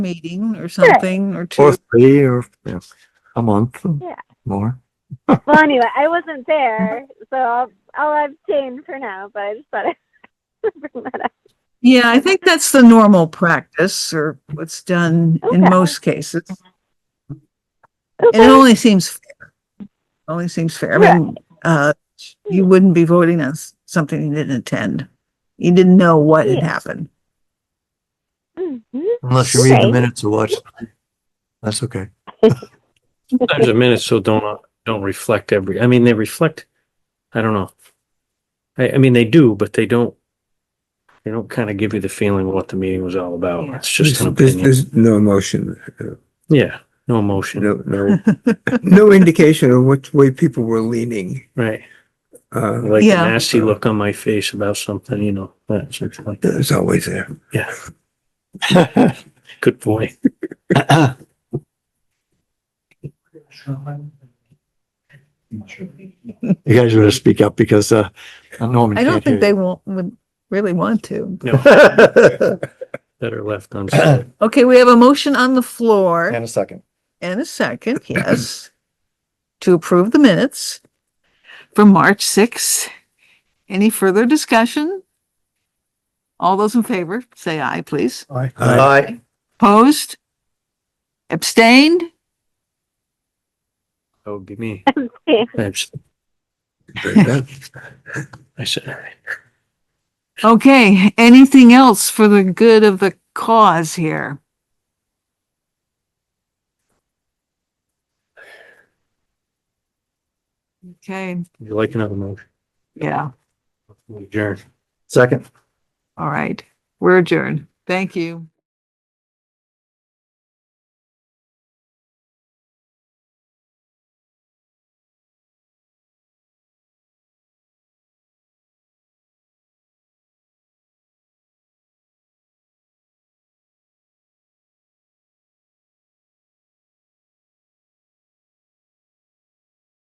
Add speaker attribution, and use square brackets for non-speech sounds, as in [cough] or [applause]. Speaker 1: meeting or something or two.
Speaker 2: Or three or yeah, a month or
Speaker 3: Yeah.
Speaker 2: more.
Speaker 3: Well, anyway, I wasn't there, so I'll, I'll abstain for now, but I just thought I'd [laughs] bring that up.
Speaker 1: Yeah, I think that's the normal practice or what's done in
Speaker 3: Okay.
Speaker 1: most cases. And
Speaker 3: Okay.
Speaker 1: it only seems fair. Only seems fair. I mean, uh,
Speaker 3: Hmm.
Speaker 1: you wouldn't be voting on s- something you didn't attend. You didn't know what had
Speaker 3: Yeah.
Speaker 1: happened.
Speaker 3: Mhm.
Speaker 2: Unless you read the
Speaker 3: Okay.
Speaker 2: minutes or watch. That's okay.
Speaker 4: Sometimes the minutes so don't, uh, don't reflect every, I mean, they reflect, I don't know. I, I mean, they do, but they don't, they don't kind of give you the feeling of what the meeting was all about.
Speaker 1: Yeah.
Speaker 4: It's just an
Speaker 5: There's-
Speaker 4: opinion.
Speaker 5: There's no emotion, uh,
Speaker 4: Yeah, no emotion,
Speaker 5: no, no, no indication of which way people were leaning.
Speaker 4: right?
Speaker 5: Uh,
Speaker 4: Like a
Speaker 1: Yeah.
Speaker 4: nasty look on my face about something, you know, that's it's like,
Speaker 5: it's always there.
Speaker 4: good boy.
Speaker 2: [laughs] You guys want to speak up because uh, Norman
Speaker 1: I don't
Speaker 2: can't hear
Speaker 1: think they won't, would really want to.
Speaker 4: No,
Speaker 2: you.
Speaker 4: better
Speaker 2: [laughs]
Speaker 4: left unsaid.
Speaker 1: Okay, we have a motion on the floor.
Speaker 2: a second.
Speaker 1: And a second, yes, [clears throat] to approve the minutes for March sixth. Any further discussion? All those in favor, say aye, please.
Speaker 2: Aye.
Speaker 1: Opposed? Abstained?
Speaker 4: That would be me.
Speaker 3: Okay.
Speaker 4: That's-
Speaker 5: That-
Speaker 4: I said,
Speaker 1: Okay, anything else for the good of the cause here? Okay,
Speaker 4: would you like another motion?
Speaker 1: yeah,
Speaker 4: We Adjourn.
Speaker 2: Second.
Speaker 1: all right. We're adjourned. Thank you.